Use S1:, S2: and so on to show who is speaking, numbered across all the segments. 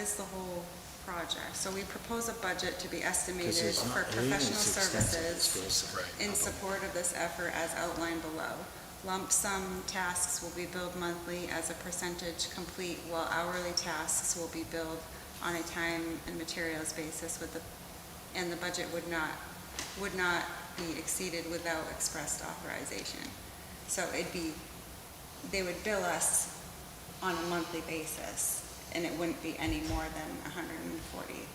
S1: is the whole project. So we propose a budget to be estimated
S2: 'Cause it's
S1: for
S2: not- it isn't
S1: professional
S2: as extensive as
S1: services
S2: Phil said.
S3: Right.
S1: in support of this effort as outlined below. Lump sum tasks will be billed monthly as a percentage complete, while hourly tasks will be billed on a time and materials basis with the, and the budget would not, would not be exceeded without expressed authorization. So it'd be, they would bill us on a monthly basis, and it wouldn't be any more than hundred and forty.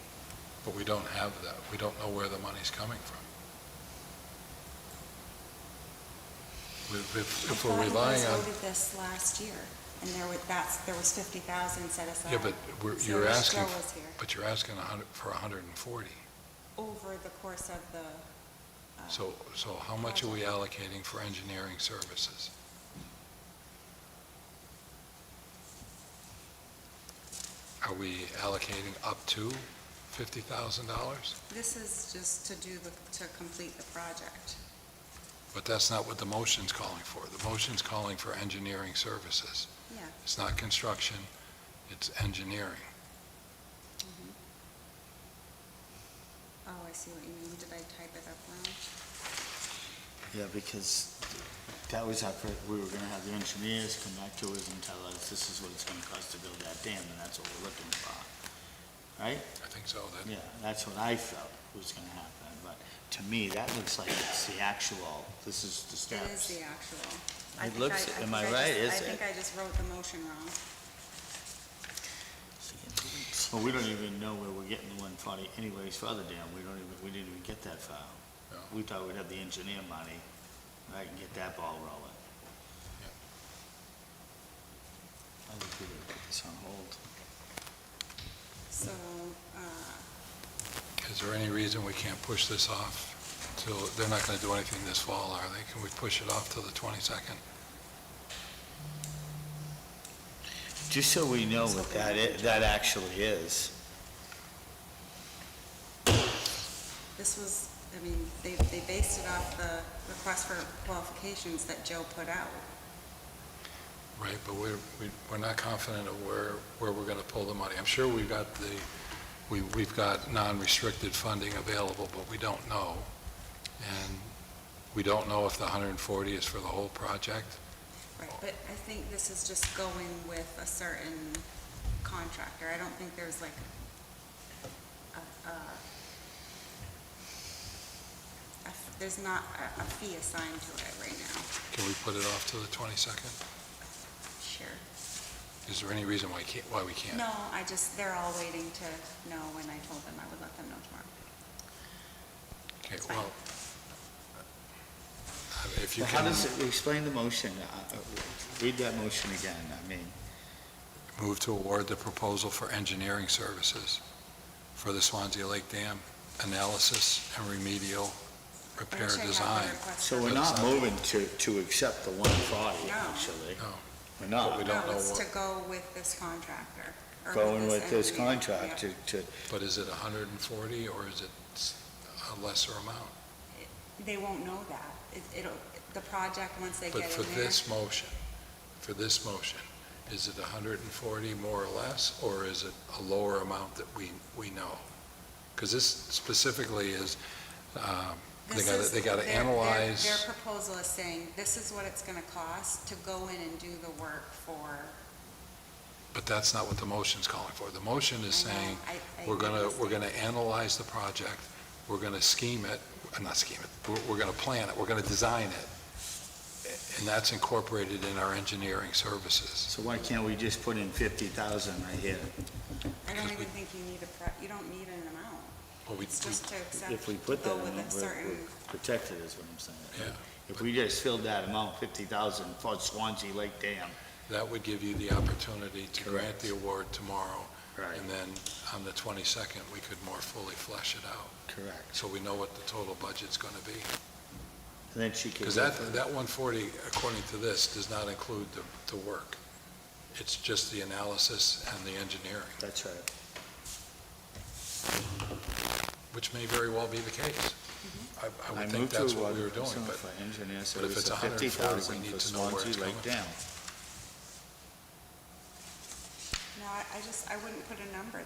S3: But we don't have that. We don't know where the money's coming from. We- If if we're relying
S1: I
S3: on,
S1: thought you guys voted this last year, and there was, that's, there was 50,000 set aside.
S3: yeah, but we're-
S1: So
S3: you're
S1: Joe
S3: asking,
S1: was here.
S3: but you're asking a hundred- for 140.
S1: Over the course of the. uh,
S3: So, so how much are we allocating for engineering services? Are we allocating up to $50,000?
S1: This is just to do the, to complete the project.
S3: But that's not what the motion's calling for. The motion's calling for engineering services.
S1: Yeah.
S3: It's not construction, it's engineering.
S1: Oh, I see what you mean. Did I type it up wrong?
S2: Yeah, because that was our, fir- we were gonna have the engineers come back to us and tell us, this is what it's gonna cost to build that dam, and that's what we're looking for. Right?
S3: I think so, that,
S2: Yeah, that's what I felt was gonna happen, but to me, that looks like it's the actual, this is the
S1: It is
S2: steps.
S1: the actual. I
S2: It
S1: think
S2: looks-
S1: I- think
S2: am I
S1: just-
S2: right, is
S1: I think
S2: it?
S1: I just wrote the motion wrong.
S2: Well, we don't even know where we're getting the one forty anyways for other dam, we don't even, we didn't even get that far.
S3: No.
S2: We thought we'd have the engineer money, right, and get that ball rolling. I think we would put this on hold.
S1: So, uh,
S3: is there any reason we can't push this off till, they're not going to do anything this fall, are they? Can we push it off till the 22nd?
S2: Just so we know what that, i- that actually is.
S1: this was, I mean, they, they based it off the request for qualifications that Joe put out.
S3: Right, but we're, we- we're not confident of where, where we're going to pull the money. I'm sure we've got the, we- we've got non-restricted funding available, but we don't know. And we don't know if the 140 is for the whole project.
S1: Right, but I think this is just going with a certain contractor. I don't think there's like a, a, a f- there's not a, a fee assigned to it right now.
S3: Can we put it off till the 22nd?
S1: Sure.
S3: Is there any reason why can't, why we can't?
S1: No, I just, they're all waiting to know when I told them I would let them know tomorrow.
S3: Okay,
S1: It's fine.
S3: well, I- if you
S2: How
S3: can
S2: does, it explain the motion, uh, uh, read that motion again, I mean,
S3: move to award the proposal for engineering services for the Swansea Lake Dam analysis and remedial
S1: I
S3: repair
S1: wish I had the
S3: design.
S1: request
S2: so
S1: for-
S2: we're not moving to, to accept the one forty,
S1: No.
S2: actually.
S3: No.
S2: We're
S3: But we
S2: not
S3: don't
S1: No,
S3: know
S1: it's
S3: what-
S1: to go with this contractor. or
S2: going with this
S1: engineer. Yep.
S2: contract to, to,
S3: But is it 140, or is it s- a lesser amount?
S1: They won't know that. It- It'll, the project, once they get in
S3: But
S1: there.
S3: for this motion, for this motion, is it 140 more or less, or is it a lower amount that we, we know? Because this specifically is, um, they
S1: This
S3: gotta-
S1: is-
S3: they gotta
S1: their- their-
S3: analyze-
S1: Their proposal is saying, this is what it's gonna cost to go in and do the work for.
S3: but that's not what the motion's calling for. The motion is
S1: I know,
S3: saying,
S1: I- I
S3: we're going to, we're
S1: understand.
S3: going to analyze the project, we're going to scheme it, uh, not scheme it, we're, we're going to plan it, we're going to design it, a- and that's incorporated in our engineering services.
S2: so why can't we just put in fifty thousand right here?
S1: I don't
S3: Because we-
S1: even think you need a, pro- you don't need an amount.
S3: Well, we-
S1: It's
S3: we-
S1: just to accept,
S2: If we put that
S1: go
S2: in,
S1: with
S2: we're
S1: a
S2: we're
S1: certain,
S2: protected, is what I'm saying.
S3: Yeah.
S2: If we just filled that amount, fifty thousand, for Swansea Lake Dam,
S3: That would give you the opportunity to grant
S2: Correct.
S3: the award tomorrow,
S2: right,
S3: and then on the 22nd, we could more fully flesh it out,
S2: correct.
S3: so we know what the total budget's going to be.
S2: And then she could.
S3: Because
S2: go
S3: that,
S2: for-
S3: that 140, according to this, does not include the, the work. It's just the analysis and the engineering,
S2: That's right.
S3: which may very well be the case. I- I would
S2: I
S3: think
S2: moved to
S3: that's
S2: award
S3: what we were doing,
S2: Personnel
S3: but
S2: for engineer
S3: but if
S2: service of
S3: it's
S2: 50,000
S3: 140, we need
S2: for
S3: to know where
S2: Swansea
S3: it's
S2: Lake
S3: coming
S2: Dam.
S1: no, I I just, I wouldn't put a number